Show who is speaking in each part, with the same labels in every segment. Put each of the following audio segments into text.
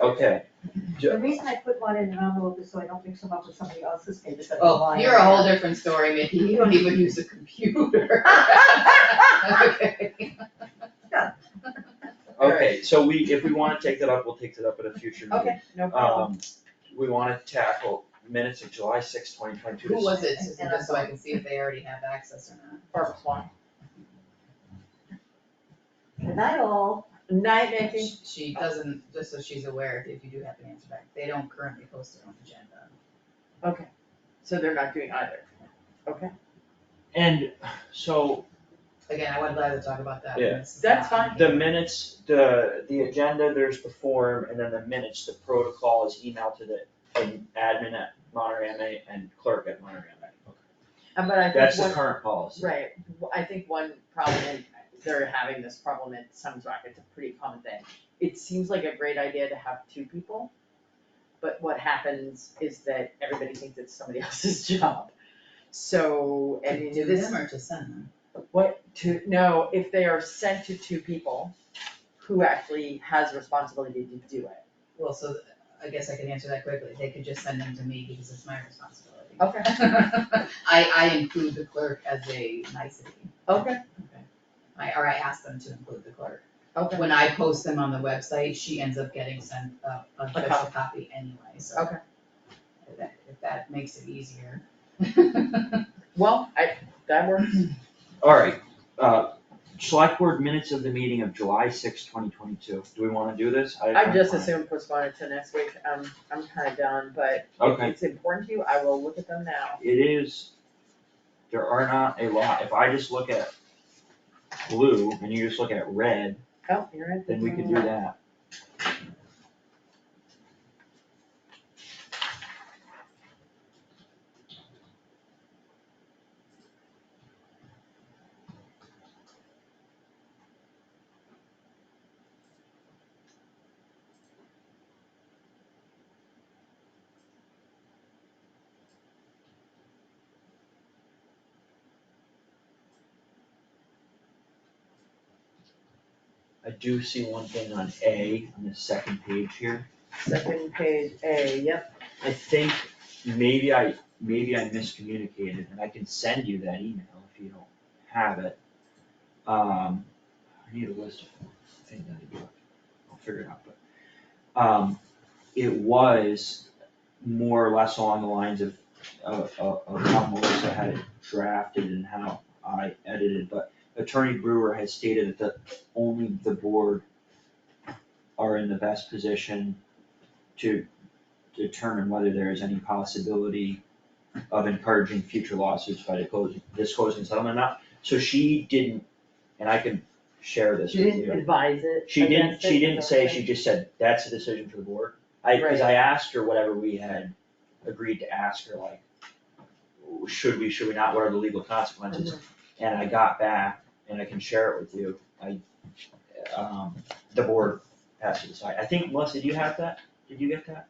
Speaker 1: Okay,
Speaker 2: The reason I put one in an envelope is so I don't mix them up with somebody else's papers that are
Speaker 3: Oh,
Speaker 2: lying.
Speaker 3: you're a whole different story, Mickey, you don't even use a computer. Okay.
Speaker 1: okay, so we, if we wanna take that up, we'll take that up at a future meeting.
Speaker 2: Okay, no problem.
Speaker 1: Um, we wanna tackle minutes of July sixth, twenty twenty-two.
Speaker 3: Who was it, Susan, just so I can see if they already have access or not?
Speaker 4: Or one.
Speaker 2: Good night all.
Speaker 4: Night, Mickey.
Speaker 3: She- She doesn't, just so she's aware, if you do have an answer back, they don't currently post their own agenda.
Speaker 4: So they're not doing either.
Speaker 1: And so
Speaker 3: Again, I would rather talk about that. when
Speaker 1: Yeah.
Speaker 3: this is
Speaker 4: That's
Speaker 3: not-
Speaker 4: fine.
Speaker 1: the minutes, the, the agenda, there's the form, and then the minutes, the protocol is emailed to the the admin at Monterey MA and clerk at Monterey MA.
Speaker 4: Uh, But I
Speaker 1: That's
Speaker 4: think
Speaker 1: the
Speaker 4: one,
Speaker 1: current policy.
Speaker 4: right, w- I think one problem, and they're having this problem in some rock, it's a pretty common thing. It seems like a great idea to have two people, but what happens is that everybody thinks it's somebody else's job. So, and
Speaker 3: Do
Speaker 4: it is.
Speaker 3: them or just send them?
Speaker 4: What to, no, if they are sent to two people, who actually has responsibility to do it?
Speaker 3: Well, so th- I guess I can answer that quickly, they could just send them to me because it's my responsibility.
Speaker 4: Okay.
Speaker 3: I, I include the clerk as a nicety.
Speaker 4: Okay,
Speaker 3: I, or I ask them to include the clerk.
Speaker 4: okay.
Speaker 3: When I post them on the website, she ends up getting sent a, a official copy anyway, so.
Speaker 4: Okay.
Speaker 3: If that, if that makes it easier.
Speaker 4: Well, I, that works.
Speaker 1: Alright, uh, select board minutes of the meeting of July sixth, twenty twenty-two, do we wanna do this?
Speaker 4: I just
Speaker 1: I'm fine.
Speaker 4: assumed postpone it to next week, um, I'm kinda done, but if
Speaker 1: Okay.
Speaker 4: it's important to you, I will look at them now.
Speaker 1: It is, there are not a lot, if I just look at blue and you just look at red,
Speaker 4: Oh, you're right.
Speaker 1: then we could do that. I do see one thing on A, on the second page here.
Speaker 4: Second page A, yep,
Speaker 1: I think maybe I, maybe I miscommunicated and I can send you that email if you don't have it. Um, I need a list of things I need to do. I'll figure it out, but, um, it was more or less along the lines of, of, of of how Melissa had it drafted and how I edited, but Attorney Brewer has stated that the, only the board are in the best position to determine whether there is any possibility of encouraging future lawsuits by disclosing, disclosing settlement amount. So she didn't, and I can share this
Speaker 4: she
Speaker 1: with you.
Speaker 4: didn't advise it.
Speaker 1: She didn't,
Speaker 4: against it,
Speaker 1: she didn't
Speaker 4: is that
Speaker 1: say,
Speaker 4: what
Speaker 1: she just said, that's a decision for the board. I, cause
Speaker 4: Right.
Speaker 1: I asked her whatever we had agreed to ask her, like, should we, should we not, what are the legal consequences?
Speaker 4: Mm-hmm.
Speaker 1: And I got back, and I can share it with you, I, um, the board has to decide. I think, Melissa, do you have that? Did you get that?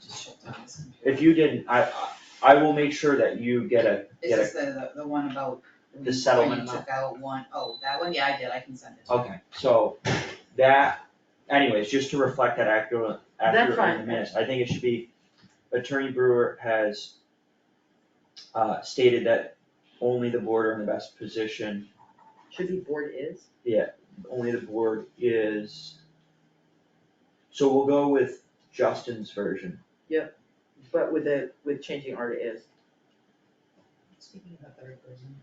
Speaker 3: Just shut down this computer.
Speaker 1: If you didn't, I, I- I will make sure that you get a,
Speaker 3: Is
Speaker 1: get
Speaker 3: this the, the, the one about? when you-
Speaker 1: settlement
Speaker 3: When you
Speaker 1: amount.
Speaker 3: took out one, oh, that one, yeah, I did, I can send it
Speaker 1: a, okay, so that, anyways, just to reflect that accurate,
Speaker 4: That's
Speaker 1: accurate in the
Speaker 4: fine.
Speaker 1: minutes, I think it should be, Attorney Brewer has uh, stated that only the board are in the best position
Speaker 4: Should be board is,
Speaker 1: only the board is. So we'll go with Justin's version.
Speaker 4: but with the, with changing art it is.
Speaker 3: Speaking of the third person.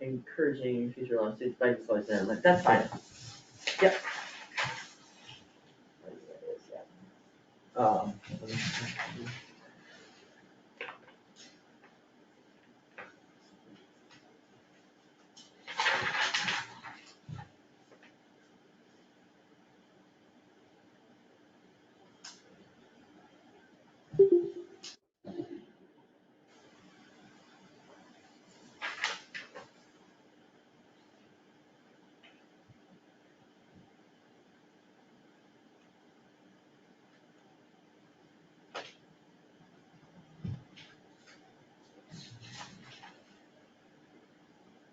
Speaker 4: encouraging future lawsuits by disclosing that, like, that's fine. Yep.
Speaker 1: Um,